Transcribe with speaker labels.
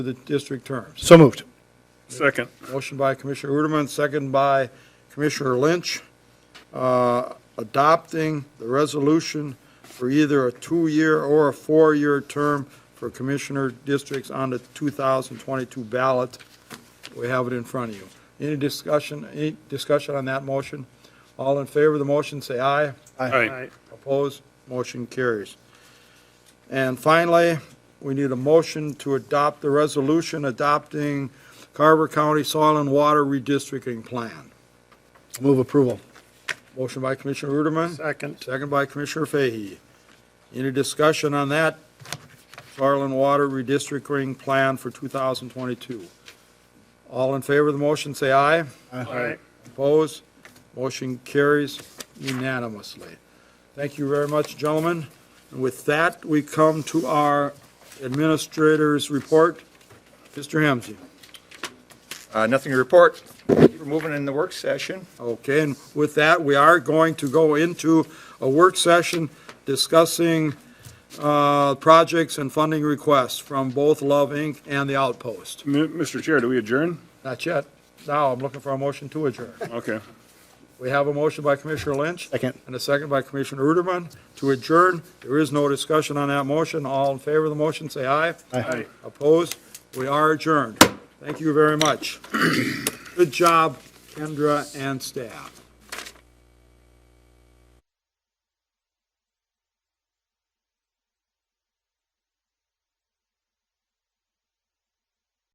Speaker 1: for the district terms.
Speaker 2: So moved.
Speaker 3: Second.
Speaker 1: Motion by Commissioner Uterman, second by Commissioner Lynch, uh, adopting the resolution for either a two-year or a four-year term for commissioner districts on the 2022 ballot. We have it in front of you. Any discussion, any discussion on that motion? All in favor of the motion, say aye.
Speaker 3: Aye.
Speaker 1: Opposed? Motion carries. And finally, we need a motion to adopt the resolution adopting Carver County Soil and Water Redistricting Plan.
Speaker 2: Move approval.
Speaker 1: Motion by Commissioner Ruderman,
Speaker 3: Second.
Speaker 1: second by Commissioner Fahey. Any discussion on that soil and water redistricting plan for 2022? All in favor of the motion, say aye.
Speaker 3: Aye.
Speaker 1: Opposed? Motion carries unanimously. Thank you very much, gentlemen. And with that, we come to our administrator's report. Mr. Hemsey.
Speaker 4: Uh, Nothing to report. We're moving in the work session.
Speaker 1: Okay, and with that, we are going to go into a work session discussing uh, projects and funding requests from both Love Inc. and The Outpost.
Speaker 3: M- Mr. Chair, do we adjourn?
Speaker 1: Not yet. Now, I'm looking for a motion to adjourn.
Speaker 3: Okay.
Speaker 1: We have a motion by Commissioner Lynch.
Speaker 2: Second.
Speaker 1: And a second by Commissioner Ruderman to adjourn. There is no discussion on that motion. All in favor of the motion, say aye.
Speaker 3: Aye.
Speaker 1: Opposed? We are adjourned. Thank you very much. Good job, Kendra and staff.